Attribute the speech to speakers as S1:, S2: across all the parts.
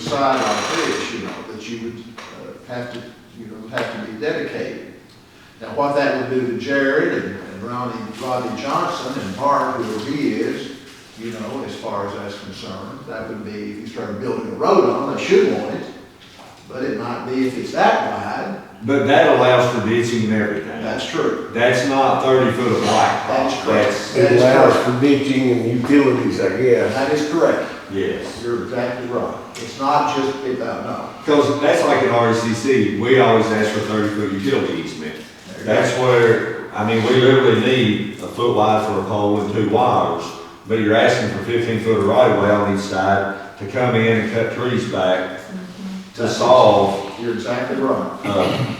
S1: sign off this, you know, that you would uh, have to, you know, have to be dedicated. Now, what that would do to Jared and and Ronnie, Rodney Johnson and Bart, whoever he is, you know, as far as that's concerned, that would be, if you started building a road on, they should want it, but it might be if it's that wide,
S2: But that allows for ditching and everything.
S1: that's true.
S2: That's not thirty foot of
S1: That's
S2: blacktop.
S1: correct.
S2: That's,
S1: That
S3: It
S1: is
S3: allows for ditching and utilities, I guess.
S1: That is correct.
S2: yes.
S1: You're exactly right. It's not just, it, uh, no.
S2: Cause that's like at RCC, we always ask for thirty foot utility easement.
S1: There you go.
S2: That's where, I mean, we literally need a foot wide for a pole and two wires. But you're asking for fifteen foot of right of way on each side to come in and cut trees back to solve,
S1: You're exactly right.
S2: uh,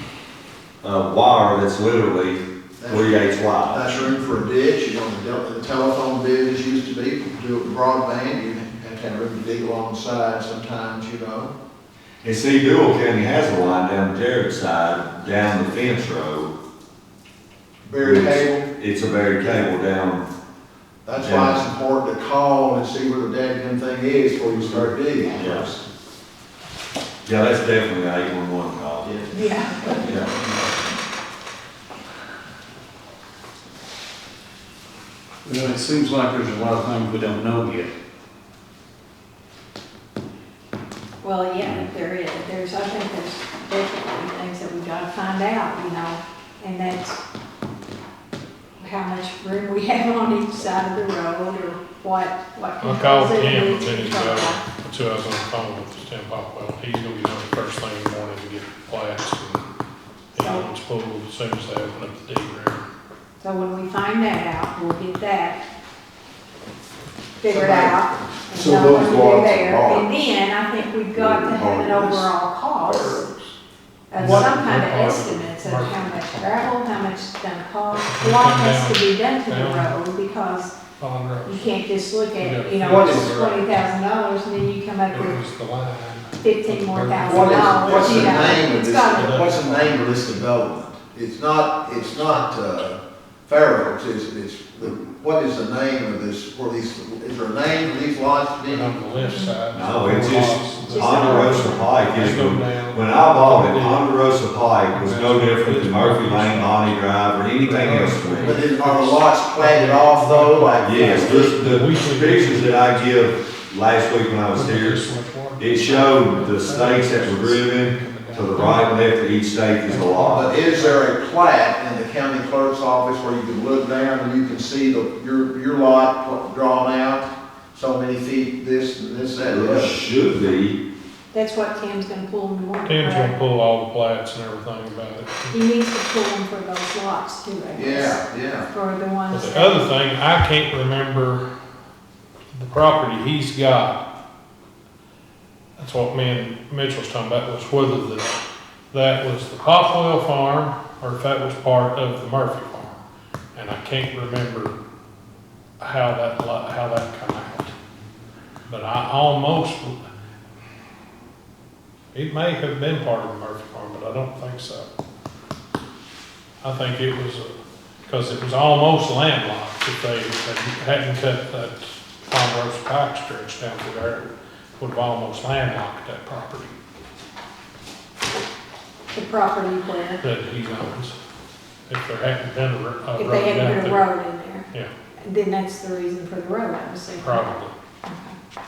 S2: a wire that's literally three eighths wide.
S1: That's room for a ditch, you want the del- the telephone bid as used to be, do it with broadband, you have to have room to dig alongside sometimes, you know.
S2: And see, Dual County has a line down Jared's side, down the fence road.
S1: Buried cable,
S2: It's a buried cable down,
S1: that's why it's important to call and see where the dadgum thing is before you start digging.
S2: Yes. yeah, that's definitely an eight-one-one call.
S1: Yeah.
S4: Yeah.
S2: Yeah.
S5: Well, it seems like there's a lot of things we don't know yet.
S4: Well, yeah, there is, there's, I think there's definitely things that we gotta find out, you know, and that's how much room we have on each side of the road or what, what.
S6: I called
S4: controls it,
S6: him
S4: which
S6: a minute
S4: control.
S6: ago, so I was on the phone with Tim Popwell. He's gonna be doing the first thing in the morning to get plats and, and it's full as soon as they open up the deed room.
S4: So when we find that out, we'll get that figured out. and
S3: So
S4: know
S3: those
S4: what to do
S3: lots are
S4: there.
S3: marked.
S4: And then I think we've got to have
S3: Marked
S4: an
S3: as
S4: overall cost. of
S6: What-
S4: some kind of
S6: what part?
S4: estimates of how much gravel, how much it's gonna cost,
S6: Put
S4: what
S6: them
S4: has to be done to the
S6: down.
S4: road, because
S6: On
S4: you
S6: road.
S4: can't just look at, you
S6: Yeah.
S4: know,
S1: What
S4: it's
S1: is-
S4: twenty thousand dollars, and then you come up
S6: It
S4: with
S6: was the line.
S4: fifteen more thousand
S1: What
S4: dollars.
S1: is, what's the
S4: you know.
S1: name of
S4: It's
S1: this,
S4: gotta-
S1: what's the name of this development? It's not, it's not, uh, Pharaoh's, it's, it's, the- what is the name of this, or these, is there a name for these lots?
S6: And
S4: Uh-huh.
S6: on the left side.
S2: No, it's just
S4: Just-
S2: Ponderosa Pike
S6: There's
S2: is,
S6: no
S2: when
S6: down.
S2: I bought it, Ponderosa Pike was no different than Murphy Lane, Bonnie Drive, or anything else to
S1: But
S2: me.
S1: then are the lots planted off though, like?
S2: Yes, the, the pictures that I give last week when I was here, it showed the stakes that were driven to the right and left of each stake is a lot.
S1: But is there a plat in the county clerk's office where you can look down and you can see the, your, your lot drawn out? So many feet, this, and this, that, and the
S2: It
S1: other?
S2: should be,
S4: That's what Tim's gonna pull in the morning.
S6: Tim's gonna
S4: correct?
S6: pull all the plats and everything about it.
S4: He needs to pull them for those lots too, I guess,
S1: Yeah, yeah.
S4: for the
S6: But
S4: ones.
S6: the
S4: that-
S6: other thing, I can't remember the property he's got. That's what me and Mitchell was talking about, was whether the, that was the Popwell Farm or if that was part of the Murphy Farm. And I can't remember how that, li- how that come out. But I almost, it may have been part of the Murphy Farm, but I don't think so. I think it was a because it was almost landlocked if they if they hadn't cut that Ponderosa Pike stretch down to there. it Would have almost landlocked that property
S4: The property where,
S6: that he owns. If there hadn't been a ro- a
S4: if
S6: road
S4: they
S6: down
S4: hadn't put a
S6: there.
S4: road in there,
S6: Yeah,
S4: then that's the reason for the road, I'm assuming.
S6: probably.
S4: Okay.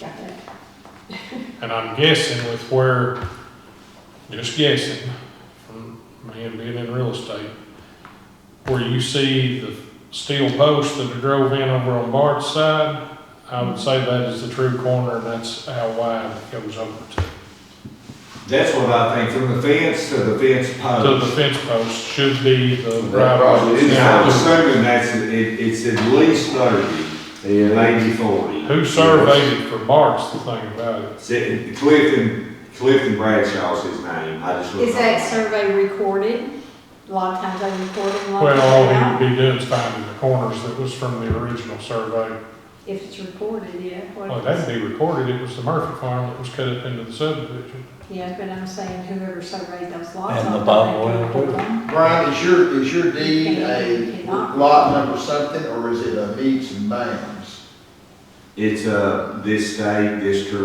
S4: Got that.
S6: And I'm guessing with where, just guessing, from me and being in real estate, where you see the steel posts that are drove in over on Bart's side, I would say that is the true corner and that's how wide it goes over to.
S2: that's what I think, from the fence to the fence
S6: So the
S2: post.
S6: fence post should be the
S3: That
S6: right
S3: probably
S2: And I'm
S6: of way.
S2: assuming that's, it, it's at least thirty, maybe forty.
S6: Who surveyed it for Bart's the thing about it.
S2: Sit- Clifton, Clifton Bradshaw's his name, I just. looked
S4: Is that
S2: up.
S4: survey recorded? A lot of times they record it, a lot of
S6: Well, all
S4: times
S6: he would be doing is finding the corners that was from the original survey.
S4: they don't. If it's recorded, yeah. what
S6: Well,
S4: if
S6: that'd be recorded, it was the Murphy farm that was cut up into the subdivision.
S4: it's- Yeah, but I'm saying whoever surveyed those lots.
S5: And the bottom
S4: I thought they
S5: one,
S4: recorded them.
S1: Brian, is your, is your deed a lot number something, or is it a meets and bounds?
S2: It's, uh, this state, district.